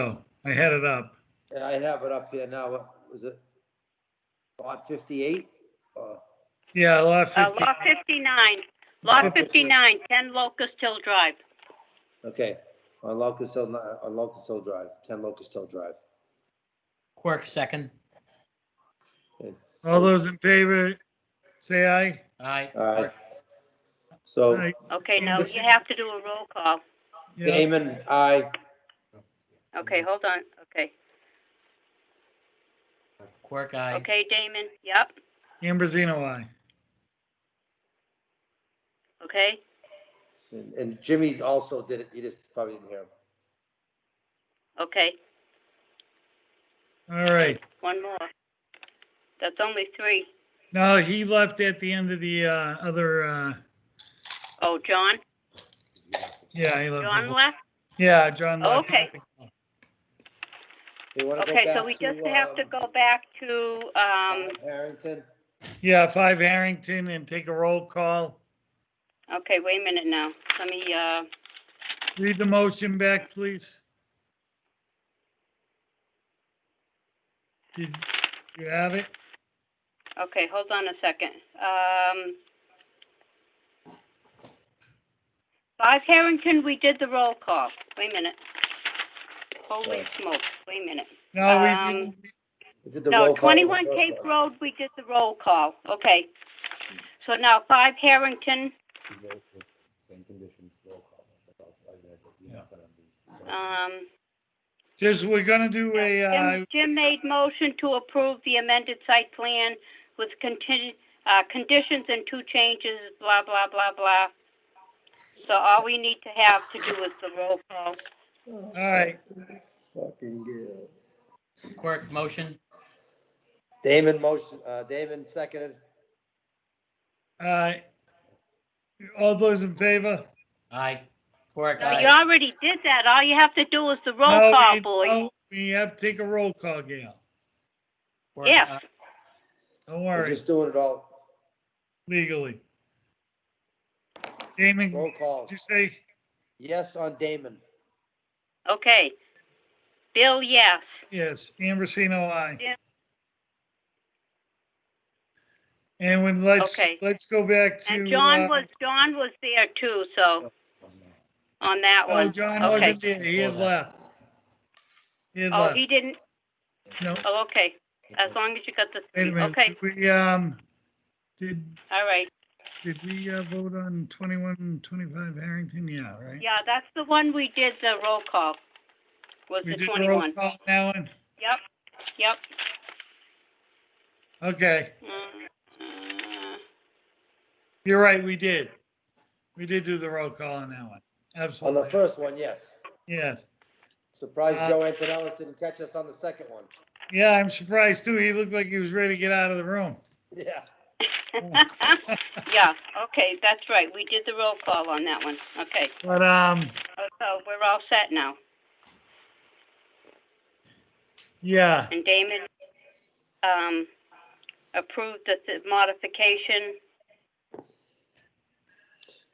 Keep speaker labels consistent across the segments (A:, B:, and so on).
A: go. Oh, I had it up.
B: And I have it up here now. What was it? Lot fifty-eight? Oh,
A: Yeah, lot
C: Uh,
A: 50.
C: Lot 59, Lot
B: 59.
C: 59, 10 Locust Hill Drive.
B: Okay, on Locust Hill, on Locust Hill Drive, ten Locust Hill Drive.
D: Quirk, second.
B: Okay.
A: All those in favor, say aye.
D: Aye.
B: All right.
D: Quirk.
B: So Oh,
A: Aye.
C: Okay, now you
A: Anderson.
C: have to do a roll call.
A: Yeah.
B: Damon, aye.
C: Okay, hold on, okay.
D: Quirk, aye.
C: Okay, Damon, yep,
A: Ambrosino, aye.
C: okay,
B: And- And Jimmy also did it. He just probably didn't hear him.
C: okay,
A: All right.
C: one more. That's only three.
A: No, he left at the end of the uh, other, uh,
C: Oh, John,
A: yeah, he
B: Uh-huh.
C: John
A: left.
C: left?
A: Yeah, John left.
C: Okay.
B: We wanna go
C: Okay, so
B: back
C: we
B: to,
C: just have to
B: um,
C: go back to, um,
B: Harrington,
A: Yeah, five Harrington and take a roll call.
C: okay, wait a minute now. Let me, uh,
A: Read the motion back, please. Did you have it?
C: okay, hold on a second. Um, Five Harrington, we did the roll call. Wait a minute. Holy
B: Okay.
C: smokes, wait a minit.
A: No, we
C: Um,
A: didn't.
B: we did the roll
C: No,
B: call.
C: 21 Cape Road, we did the roll call, okay. So now 5 Harrington,
E: Same conditions, roll call. That's all. I read it. You're not gonna be-
C: um,
A: Just, we're gonna do a, uh,
C: Jim- Jim made motion to approve the amended site plan with contingent, uh, conditions and two changes, blah, blah, blah, blah. So all we need to have to do is the roll call.
A: all right,
B: Fucking good.
D: Quirk, motion.
B: Damon motion, uh, Damon seconded.
A: uh, all those in favor?
D: Aye. Quirk,
C: No, you
D: aye.
C: already did that, all you have to do is the roll
A: No,
C: call,
A: we-
C: boy.
A: no, We have to take a roll call, Gail.
D: Quirk,
C: Yeah.
D: aye.
A: Don't
B: We're
A: worry,
B: just doing it all,
A: legally. Damon,
B: roll
A: did
B: call.
A: you say,
B: Yes on Damon.
C: Okay. Bill, yes.
A: yes, Ambrosino, aye.
C: Yeah.
A: And when, let's,
C: Okay.
A: let's go back to.
C: And John
A: uh,
C: was, John was there too, so, on that
A: Oh,
C: one.
A: John
C: Okay.
A: wasn't there, he had left. He had
C: Oh,
A: left,
C: he didn't,
A: no,
C: oh, okay, as long as you got the
A: wait a
C: three,
A: minute,
C: okay,
A: did we, um, did,
C: all right.
A: did we uh, vote on 21, 25 Harrington? Yeah, right?
C: Yeah, that's the one we did the roll call, was
A: We
C: the
A: did a roll
C: 21.
A: call, Alan?
C: Yep, yep.
A: Okay,
C: Mm, uh,
A: you're right, we did. We did do the roll call on that one,
B: On the
A: absolutely,
B: first one, yes.
A: yes.
B: Surprised
A: Uh,
B: Joe Antonellis didn't catch us on the second one.
A: Yeah, I'm surprised too, he looked like he was ready to get out of the room.
B: Yeah.
C: Yeah, okay, that's right, we did the roll call on that one, okay.
A: But, um,
C: Oh, So we're all set now,
A: yeah,
C: and Damon um, approved the the modification.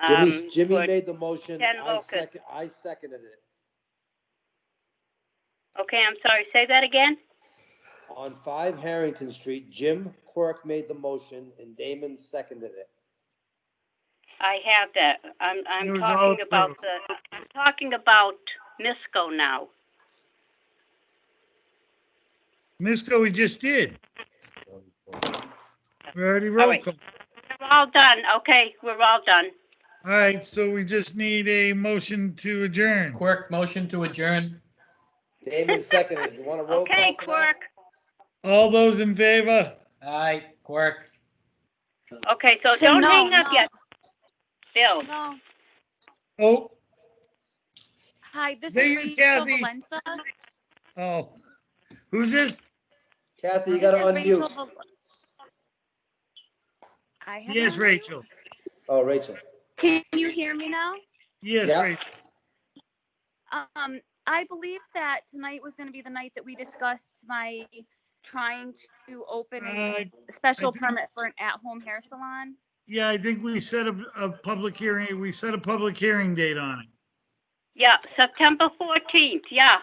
B: Jimmy,
C: um,
B: Jimmy
C: for-
B: made the motion.
C: Ken
B: I
C: Wilken.
B: second, I seconded it.
C: Okay, I'm sorry, say that again?
B: On five Harrington Street, Jim Quirk made the motion and Damon seconded it.
C: I have that, I'm,
A: It
C: I'm
A: was all
C: talking about
A: approved.
C: the, I'm talking about Misco now.
A: Misco, we just did, we already
C: All
A: roll
C: right.
A: call.
C: We're all done, okay, we're all done.
A: All right, so we just need a motion to adjourn.
D: Quirk, motion to adjourn.
B: Damon seconded it. You want to roll call?
C: Okay,
B: for that?
C: Quirk,
A: All those in favor?
D: Aye. Quirk.
C: okay, so
F: Say
C: don't
F: no,
C: hang up
F: no.
C: yet. Bill,
F: No.
A: Oh,
F: Hi, this
A: Megan
F: is Rachel
A: Kathy.
F: Valenza.
A: oh, who's this?
B: Kathy, you
F: This
B: gotta
F: is Rachel
B: unmute.
F: Val- I have.
A: Yes,
F: unmute.
A: Rachel.
B: Oh, Rachel.
F: Can you hear me now?
A: Yes,
B: Yeah.
A: Rachel.
F: Um, I believe that tonight was gonna be the night that we discussed my trying to open
A: Uh,
F: a special
A: think-
F: permit for an at-home hair salon.
A: Yeah, I think we set a, a public hearing, we set a public hearing date on it.
C: yeah, September fourteenth, yeah,